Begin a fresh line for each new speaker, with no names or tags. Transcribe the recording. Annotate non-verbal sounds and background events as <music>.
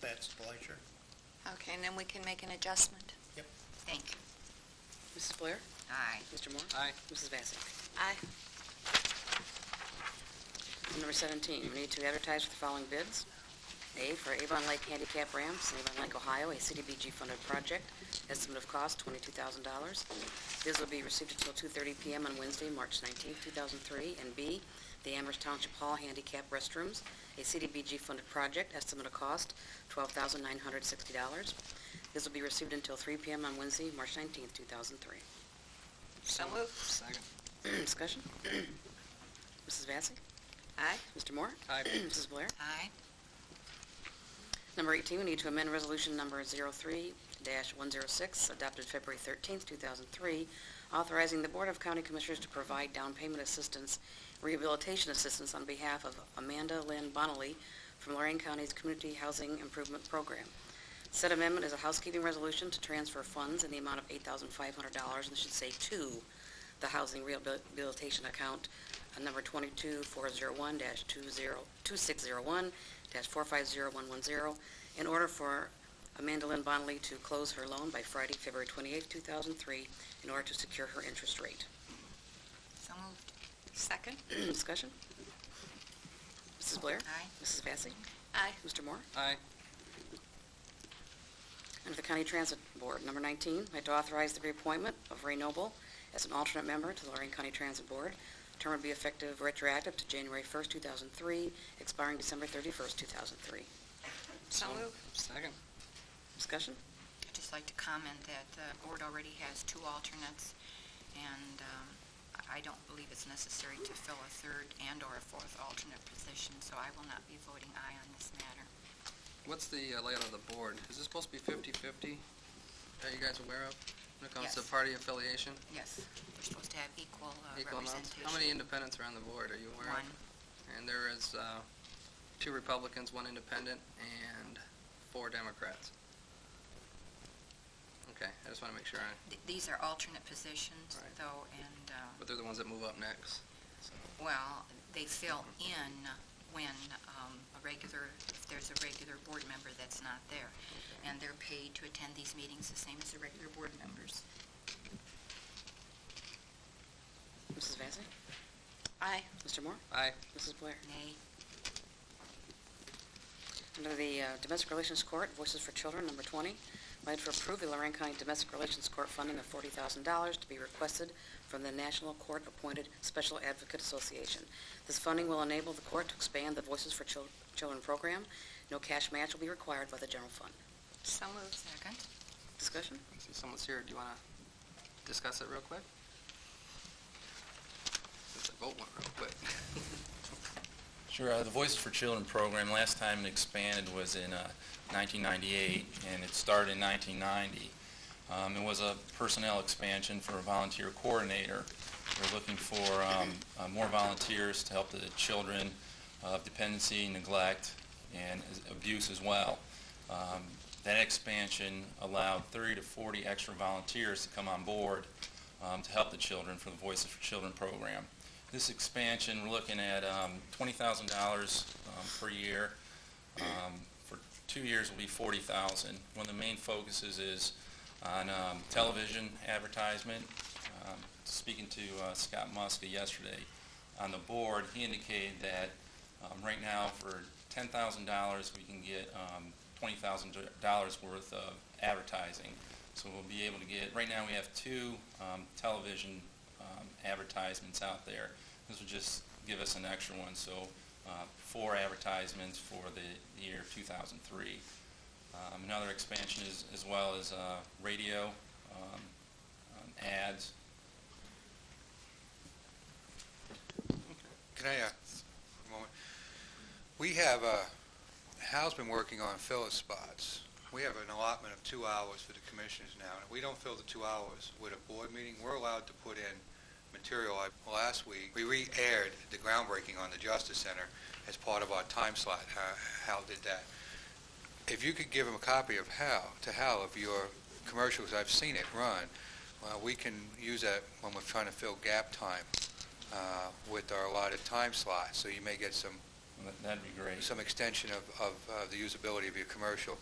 that's the pleasure.
Okay, and then we can make an adjustment.
Thank you.
Mrs. Blair?
Aye.
Mr. Moore?
Aye.
Mrs. Vacy?
Aye.
Number 17, we need to advertise for the following bids. A for Avon Lake Handicap Ramps, in Avon Lake, Ohio, a CDBG-funded project, estimate of cost $22,000. Bids will be received until 2:30 PM on Wednesday, March 19, 2003. And B, the Amherst Township Hall Handicap Restrooms, a CDBG-funded project, estimate of cost $12,960. Bids will be received until 3 PM on Wednesday, March 19, 2003.
So moved.
Second.
Discussion? <clears throat> Mrs. Vacy?
Aye.
Mr. Moore?
Aye.
<clears throat> Mrs. Blair?
Aye.
Number 18, we need to amend Resolution Number 03-106, adopted February 13th, 2003, authorizing the Board of County Commissioners to provide down payment assistance, rehabilitation assistance on behalf of Amanda Lynn Bonnelly from Lorraine County's Community Housing Improvement Program. Said amendment is a housekeeping resolution to transfer funds in the amount of $8,500, and should say to, the Housing Rehabilitation Account, uh, number 22401-2601-450110, in order for Amanda Lynn Bonnelly to close her loan by Friday, February 28, 2003, in order to secure her interest rate. <clears throat>
So moved.
Second?
Discussion? Mrs. Blair?
Aye.
Mrs. Vacy?
Aye.
Mr. Moore?
Aye.
Under the County Transit Board, number 19, I'd like to authorize the reappointment of Ray Noble as an alternate member to the Lorraine County Transit Board. Term would be effective retroactive to January 1st, 2003, expiring December 31st, 2003.
So moved.
Second.
Discussion?
I'd just like to comment that the board already has two alternates, and um, I- I don't believe it's necessary to fill a third and/or a fourth alternate position, so I will not be voting aye on this matter.
What's the uh, layout of the board? Is this supposed to be 50-50? Are you guys aware of? When it comes to
Yes.
party affiliation?
Yes, we're supposed to have equal uh,
Equal amounts?
representation.
How many independents are on the board? Are you aware of?
One.
And there is uh, two Republicans, one independent, and four Democrats. Okay, I just want to make sure, I-
Th- These are alternate positions,
Right.
though, and, uh,
but they're the ones that move up next. so.
well, they fill in when um, a regular, if there's a regular board member that's not there. And they're paid to attend these meetings the same as the regular board members.
Mrs. Vacy?
Aye.
Mr. Moore?
Aye.
Mrs. Blair?
Nay.
Under the uh, Domestic Relations Court, Voices for Children, number 20, I'd for approve the Lorraine County Domestic Relations Court funding of $40,000 to be requested from the National Court Appointed Special Advocate Association. This funding will enable the court to expand the Voices for Chil- Children program. No cash match will be required by the general fund.
So moved.
Second.
Discussion?
I See, someone's here. Do you want to discuss it real quick? Since the vote went real quick. <laughs>
Sure. uh, The Voices for Children program, last time it expanded was in uh, 1998, and it started in 1990. Um, It was a personnel expansion for a volunteer coordinator. We're looking for um, uh, more volunteers to help the children of dependency, neglect, and abuse as well. Um, That expansion allowed 30 to 40 extra volunteers to come on board um, to help the children for the Voices for Children program. This expansion, we're looking at um, $20,000 um, per year. Um, For two years will be $40,000. One of the main focuses is on um, television advertisement. Um, Speaking to uh, Scott Muska yesterday on the board, he indicated that um, right now for $10,000, we can get um, $20,000 worth of advertising. So we'll be able to get, right now we have two um, television um, advertisements out there. This would just give us an extra one, so uh, four advertisements for the year 2003. Um, Another expansion is, as well as uh, radio um, um, ads.
Can I, uh, for a moment? We have, uh, Hal's been working on filler spots. We have an allotment of two hours for the commissioners now, and if we don't fill the two hours with a board meeting, we're allowed to put in material. Like Last week, we re-aired the groundbreaking on the Justice Center as part of our time slot. Uh, Hal did that. If you could give him a copy of Hal, to Hal, of your commercials, I've seen it run, uh, we can use that when we're trying to fill gap time uh, with our allotted time slot, so you may get some,
That- That'd be great.
some extension of, of uh, the usability of your commercial.